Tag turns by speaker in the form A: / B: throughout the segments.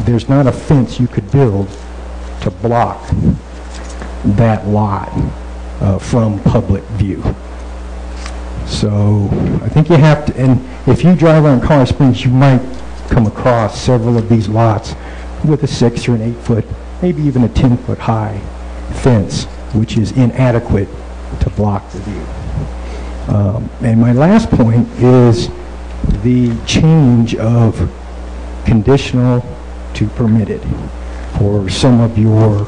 A: there's not a fence you could build to block that lot uh, from public view. So I think you have to, and if you drive around Colorado Springs, you might come across several of these lots with a six or an eight-foot, maybe even a 10-foot-high fence, which is inadequate to block the view. Um, And my last point is the change of conditional to permitted for some of your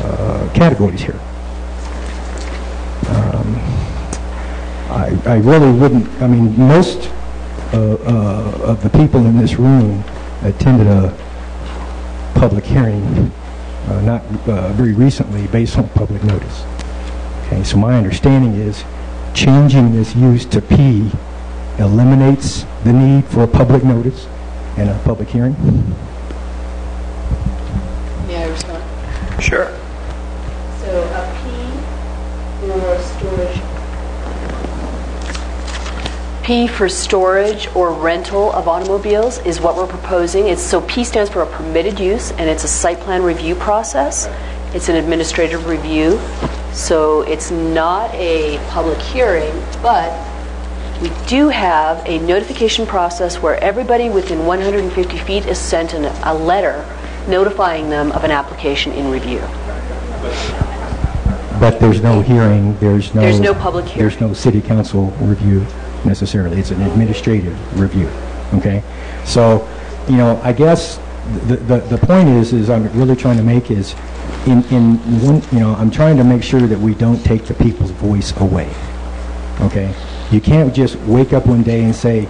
A: uh, categories here. Um, I I really wouldn't, I mean, most uh, uh, of the people in this room attended a public hearing, uh, not uh, very recently, based on public notice. Okay, so my understanding is changing this use to P eliminates the need for a public notice and a public hearing?
B: May I respond?
C: Sure.
B: So a P or storage? P for storage or rental of automobiles is what we're proposing. It's, so P stands for a permitted use, and it's a site plan review process. It's an administrative review, so it's not a public hearing, but we do have a notification process where everybody within 150 feet is sent an- a letter notifying them of an application in review.
A: But there's no hearing, there's no...
B: There's no public hearing.
A: There's no city council review necessarily, it's an administrative review, okay? So, you know, I guess the, the, the point is, is I'm really trying to make is, in, in, one you know, I'm trying to make sure that we don't take the people's voice away, okay? You can't just wake up one day and say,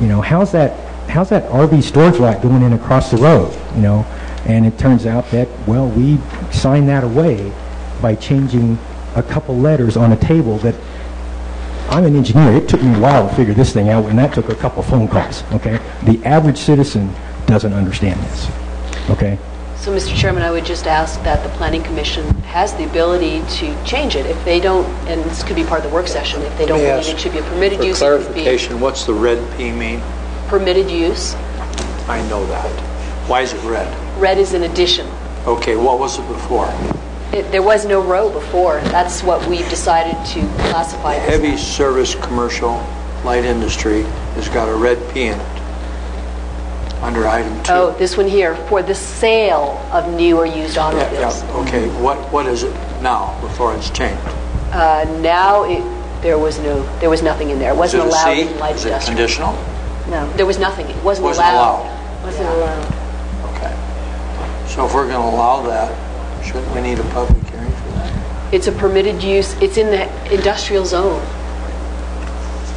A: you know, how's that, how's that RV storage lot going in across the road, you know? And it turns out that, well, we signed that away by changing a couple letters on a table that, I'm an engineer, it took me a while to figure this thing out, and that took a couple phone calls, okay? The average citizen doesn't understand this, okay?
B: So, Mr. Chairman, I would just ask that the Planning Commission has the ability to change it if they don't, and this could be part of the work session, if they don't
C: Let me
B: believe it
C: ask
B: should be a permitted
C: For
B: use, it could be
C: clarification, what's the red P mean?
B: permitted use.
C: I know that. Why is it red?
B: Red is an addition.
C: Okay, what was it before?
B: It- There was no row before. That's what we've decided to classify this.
C: Heavy service, commercial, light industry has got a red P in it under item two.
B: Oh, this one here, for the sale of new or used
C: Yeah,
B: automobiles.
C: yeah, okay, what, what is it now before it's changed?
B: Uh, Now, it- there was no, there was nothing in there. It
C: Is it
B: wasn't
C: a
B: allowed
C: C?
B: in light
C: Is it
B: industrial.
C: conditional?
B: No, there was nothing. It wasn't
C: Wasn't
B: allowed. Yeah.
C: Okay. So if we're going to allow that, shouldn't we need a public hearing for that?
B: It's a permitted use, it's in the industrial zone.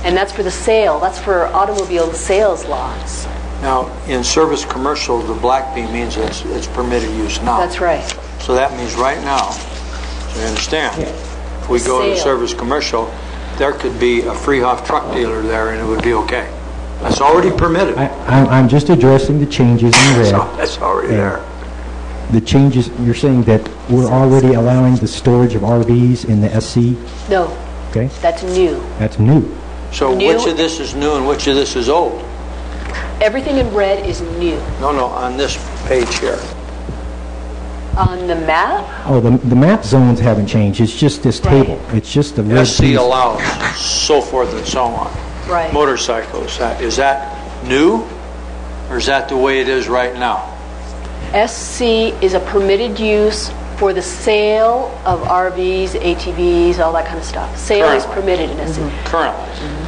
B: And that's for the sale, that's for automobile sales lots.
C: Now, in service commercial, the black P means it's, it's permitted use now.
B: That's right.
C: So that means right now, you understand, if we go to
B: Sale.
C: service commercial, there could be a Freehoff truck dealer there and it would be okay. That's already permitted.
A: I, I'm, I'm just addressing the changes in red.
C: So That's already there.
A: The changes, you're saying that we're already allowing the storage of RVs in the SC,
B: No,
A: okay?
B: that's new.
A: That's new.
C: So
B: New-
C: which of this is new and which of this is old?
B: Everything in red is new.
C: No, no, on this page here.
B: On the map,
A: Oh, the, the map zones haven't changed, it's just this table. It's just the red
C: SC
A: piece.
C: allows, so forth and so on.
B: Right.
C: Motorcycles, that- is that new or is that the way it is right now?
B: SC is a permitted use for the sale of RVs, ATVs, all that kind of stuff. Sale is
C: Currently.
B: permitted in SC.
C: Currently?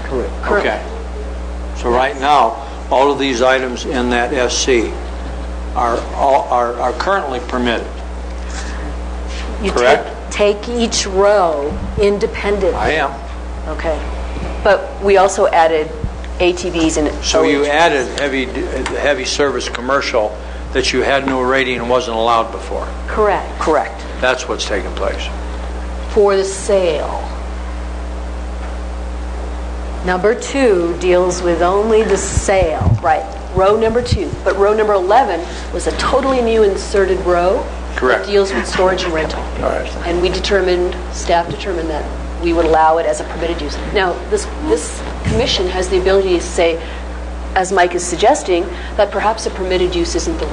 C: Correct.
B: Correct.
C: Okay. So right now, all of these items in that SC are, all- are are currently permitted.
D: You ta-
C: Correct.
D: Take each row independently.
C: I am.
B: Okay. But we also added ATVs and...
C: So you added heavy, heavy service commercial that you had no rating and wasn't allowed before.
B: Correct. Correct.
C: That's what's taking place.
B: For the sale.
D: Number two deals with only the sale.
B: Right, row number two. But row number 11 was a totally new inserted row.
C: Correct.
B: That deals with storage and rental.
C: All right.
B: And we determined, staff determined that we would allow it as a permitted use. Now, this, this commission has the ability to say, as Mike is suggesting, that perhaps a permitted use isn't the right